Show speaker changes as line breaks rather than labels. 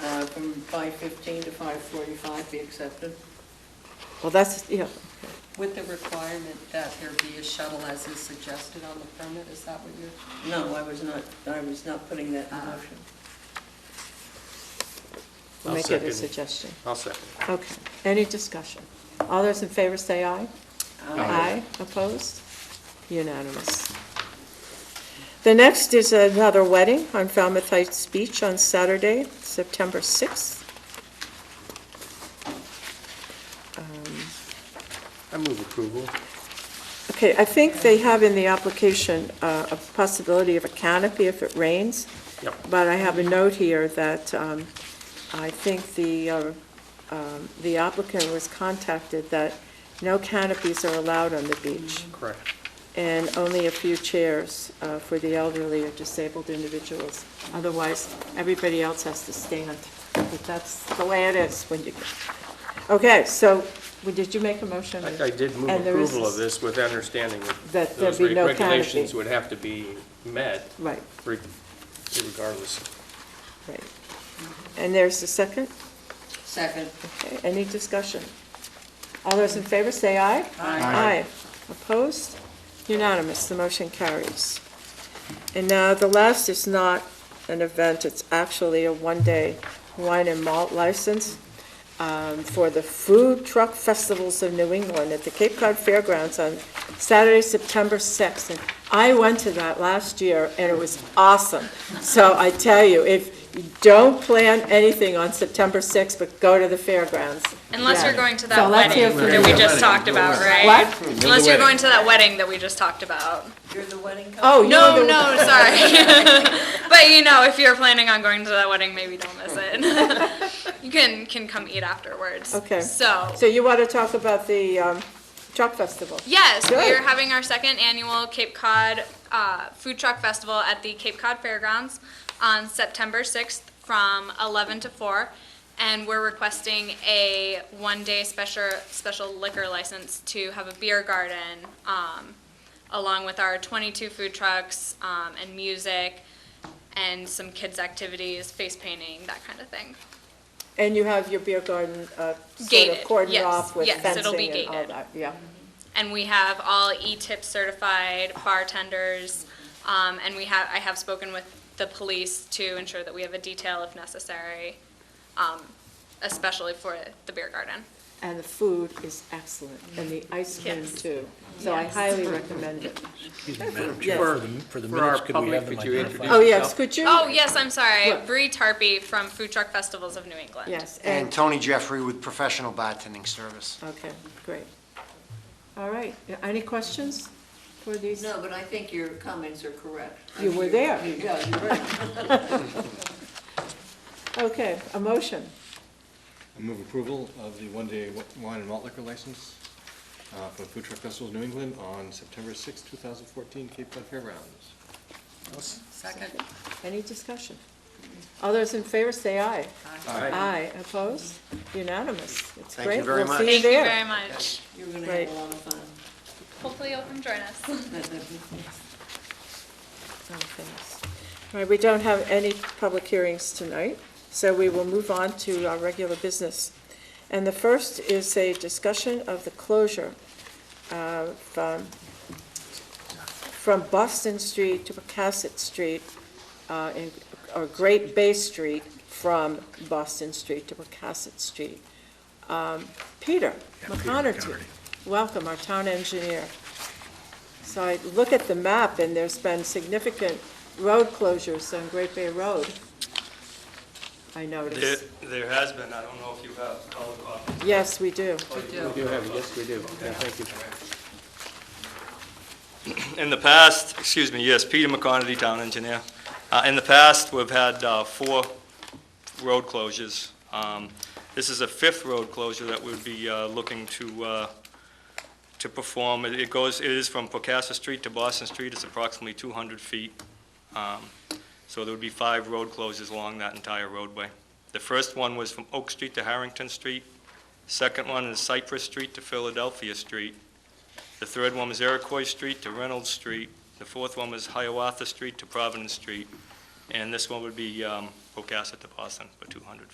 uh, from 5:15 to 5:45 be accepted?
Well, that's, yeah,
With the requirement that there be a shuttle as is suggested on the permit, is that what you're?
No, I was not, I was not putting that in
Ah.
motion.
we'll
I'll
make it a
second.
suggestion.
I'll second.
Okay, any discussion? All those in favor say aye.
Uh,
Ah,
Aye.
opposed? Unanimous. The next is another wedding on Falmouth Heights Beach on Saturday, September 6th.
I move approval.
Okay, I think they have in the application uh, a possibility of a canopy if it rains,
Yep.
but I have a note here that um, I think the uh, um, the applicant was contacted that no canopies are allowed on the beach.
Correct.
and only a few chairs uh, for the elderly or disabled individuals. Otherwise, everybody else has to stand. But that's the way it is when you, okay, so, well, did you make a motion?
I I did move
And there is-
approval of this with understanding that
That there
those
be no
reg- regulations
canopy.
would have to be met
Right,
re- regardless.
right. And there's the second?
Second.
Okay, any discussion? All those in favor, say aye. Aye. Opposed? Unanimous, the motion carries. And now, the last is not an event, it's actually a one-day wine and malt license um, for the Food Truck Festivals of New England at the Cape Cod Fairgrounds on Saturday, September 6th. And I went to that last year, and it was awesome. So I tell you, if you don't plan anything on September 6th, but go to the fairgrounds.
Unless you're
Yeah.
going to
So
that
let's hear
wedding
from
that we just talked about, right?
What?
Unless you're going to that wedding that we just talked about.
You're the wedding couple?
Oh, you're
No,
the-
no, sorry. But you know, if you're planning on going to that wedding, maybe don't miss it. You can, can come eat afterwards.
Okay.
So,
So you want to talk about the um, truck festival?
yes, we
Good.
are having our second annual Cape Cod uh, Food Truck Festival at the Cape Cod Fairgrounds on September 6th from 11 to 4. And we're requesting a one-day special, special liquor license to have a beer garden, um, along with our 22 food trucks um, and music and some kids' activities, face painting, that kind of thing.
And you have your beer garden uh, sort of
Gated,
cordoned
yes,
off with
yes, it'll be
fencing and all
gated.
that, yeah.
and we have all E E-tip certified bartenders, um, and we have, I have spoken with the police to ensure that we have a detail if necessary, um, especially for the beer garden.
And the food is excellent, and the ice cream
Yes.
too. So I highly recommend it.
Excuse me, Madam
Yes.
Chair, for the, for the
For our
minutes, could we
public,
have them
could you
identified?
introduce-
Oh, yes, could you?
Oh, yes, I'm sorry,
What?
Bree Tarpey from Food Truck Festivals of New England.
Yes,
And
and,
Tony Jeffrey with Professional Bartending Service.
okay, great. All right, Yeah, any questions for
Oh.
these?
No, but I think your comments are correct.
You were there.
Yeah, you were.
Okay, a motion.
I move approval of the one-day wi- wine and malt liquor license uh, for Food Truck Festivals New England on September sixth, two 2014, Cape Cod Fairgrounds.
Second.
Any discussion? All those in favor, say aye.
Aye.
Aye, opposed? Unanimous. It's
Thank you
great.
very
We'll
much.
see
Thank you
there.
very much.
You're going to
Right.
have a lot of fun.
Hopefully you'll come join us.
Oh, thanks. All right, we don't have any public hearings tonight, so we will move on to our regular business. And the first is a discussion of the closure of, um, from Boston Street to Pocasset Street, uh, in- or Great Bay Street from Boston Street to Pocasset Street. Um, Peter McConerty, welcome, our town engineer. So I look at the map, and there's been significant road closures on Great Bay Road, I
There,
noticed.
there has been, I don't know if you have uh, color copies.
Yes, we do.
We do have, it. yes, we do. Yeah, Thank you.
In the past, excuse me, yes, Peter McConerty, town engineer. Uh, In the past, we've had uh, four road closures. Um, This is a fifth road closure that we'd be uh, looking to, uh, to perform. It it goes, it is from Pocasset Street to Boston Street, it's approximately 200 feet. Um, So there would be five road closures along that entire roadway. The first one was from Oak Street to Harrington Street. Second one is Cypress Street to Philadelphia Street. The third one was Iroquois Street to Reynolds Street. The fourth one was Hiawatha Street to Providence Street. And this one would be um, Pocasset to Boston for 200